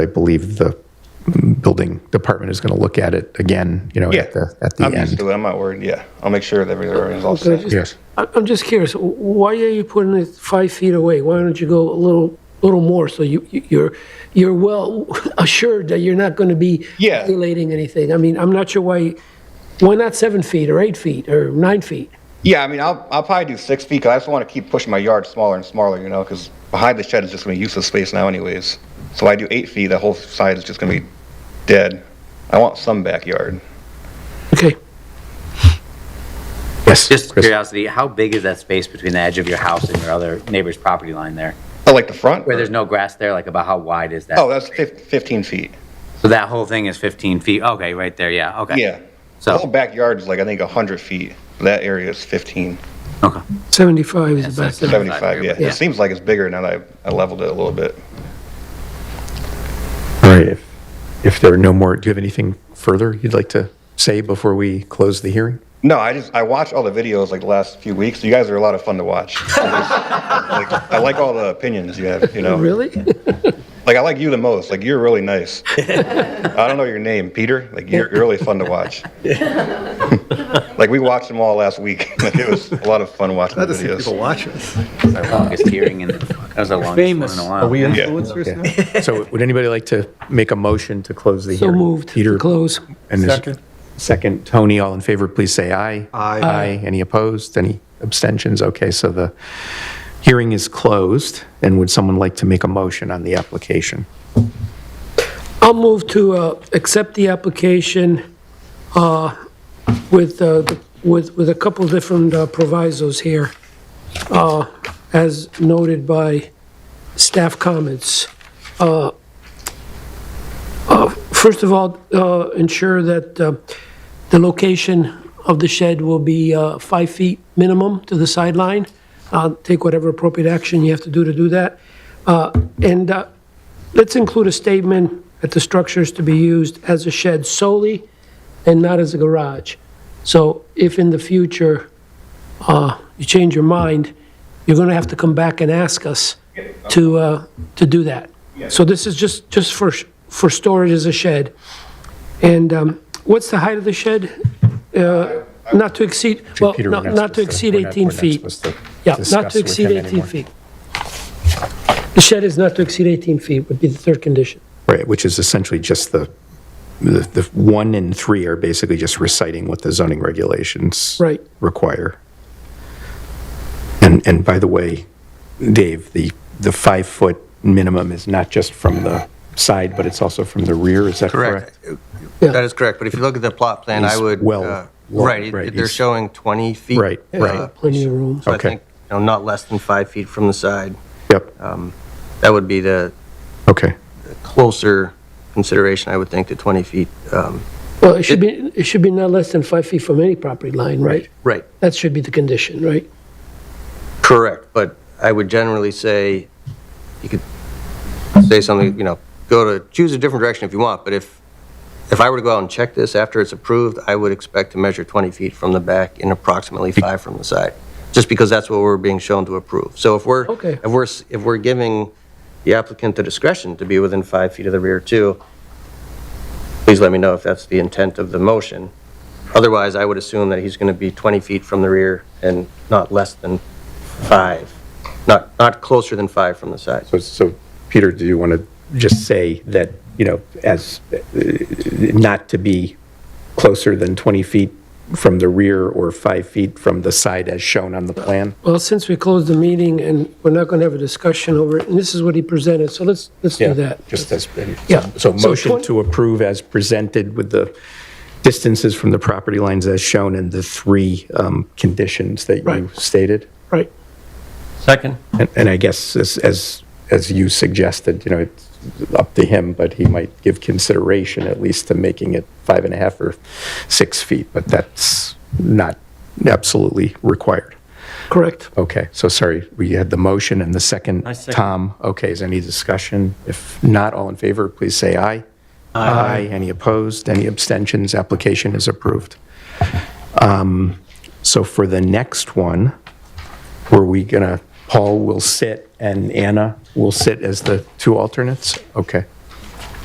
I believe the building department is going to look at it again, you know, Yeah. at the, at the I'm used end. to it. I'm not worried. Yeah. I'll make sure that everything is all set. Yes. I- I'm just curious, why are you putting it five feet away? Why don't you go a little, little more so you, you- you're, you're well assured that you're not going to be Yeah. violating anything? I mean, I'm not sure why, why not seven feet or eight feet or nine feet? Yeah, I mean, I'll, I'll probably do six feet 'cause I just want to keep pushing my yard smaller and smaller, you know, because behind the shed is just going to be useless space now, anyways. So I do eight feet, the whole side is just going to be dead. I want some backyard. Okay, Yes. Just Chris. curiosity, how big is that space between the edge of your house and your other neighbor's property line there? I Oh, like the front. Where there's no grass there, like about how wide is that? Oh, that's fif- 15 feet. So that whole thing is 15 feet? Okay, right there, yeah, okay. Yeah. The whole So, backyard is like, I think, 100 feet. That area is 15, okay. 75 is the Yeah, best. so- I- 75, yeah. Yeah. It seems like it's bigger now that I, I leveled it a little bit. All right. If, if there are no more, do you have anything further you'd like to say before we close the hearing? No, I just I watch all the videos like the last few weeks. You guys are a lot of fun to watch. I just- like, I like all the opinions you have. You know, Really? like I like you the most. Like you're really nice. I don't know your name, Peter. Like you're you're really fun to watch. like we watched them all last week. Like it was a lot of fun watching the Glad to see people videos. watch us. Our longest hearing in, the- that was the longest one in Famous. a Are while. we yeah. influencers now? Okay. So would anybody like to make a motion to close the So hearing? moved, Peter to close. and is- Second. Second, Tony, all in favor, please say aye. Aye. Aye. Any opposed? Any abstentions? Okay, so the hearing is closed. And would someone like to make a motion on the application? I'll move to uh, accept the application uh, with, uh, the- with, with a couple different uh, provisos here, uh, as noted by staff comments. Uh, uh, First of all, uh, ensure that uh, the location of the shed will be uh, five feet minimum to the sideline. Uh, Take whatever appropriate action you have to do to do that. Uh, And uh, Let's include a statement that the structure is to be used as a shed solely and not as a garage. So if in the future uh, you change your mind, you're going to have to come back and ask us to, uh, to do that. So this is just, just for, sh- for storage as a shed. And um, what's the height of the shed? Uh, Not to exceed, well, Peter, we're not not to supposed exceed we're not- 18 we're not feet. supposed to Yeah, not discuss to with exceed him 18 anymore. feet. The shed is not to exceed 18 feet would be the third condition. Right, which is essentially just the, the, the one and three are basically just reciting what the zoning regulations Right. require. And, and by the way, Dave, the, the five-foot minimum is not just from the side, but it's also from the rear, is that correct? Correct. That is correct, but if you look at the plot plan, I He's would, well- uh, well, right, right, it- they're he's- showing 20 feet. Right, uh, right. Plenty of room. So I Okay. think, you know, not less than five feet from the side. Yep, That would be the okay. closer consideration, I would think, to 20 feet. um, Well, it should be, it should be not less than five feet from any property line, right? Right, That should be the condition, right? correct, but I would generally say, you could say something, you know, go to, choose a different direction if you want, but if, if I were to go out and check this after it's approved, I would expect to measure 20 feet from the back and approximately five from the side, just because that's what we're being shown to approve. So if we're, Okay. if we're, s- if we're giving the applicant the discretion to be within five feet of the rear too, please let me know if that's the intent of the motion. Otherwise, I would assume that he's going to be 20 feet from the rear and not less than five, not, not closer than five from the side. So, so, Peter, do you want to just say that, you know, as, uh, not to be closer than 20 feet from the rear or five feet from the side as shown on the plan? Well, since we closed the meeting and we're not going to have a discussion over it, and this is what he presented, so let's, let's do that. Just as, and- Yeah. so So motion twen- to approve as presented with the distances from the property lines as shown and the three um, conditions that you Right. stated? Right. Second. And- And I guess as, as, as you suggested, you know, it's up to him, but he might give consideration at least to making it five and a half or six feet, but that's not absolutely required. Correct. Okay, so sorry, we had the motion and the second. Tom, okay, is there any discussion? If not, all in favor, please say aye. Aye. Any opposed, any abstentions, application is approved. Um, So for the next one, were we gonna, Paul will sit and Anna will sit as the two alternates? Okay.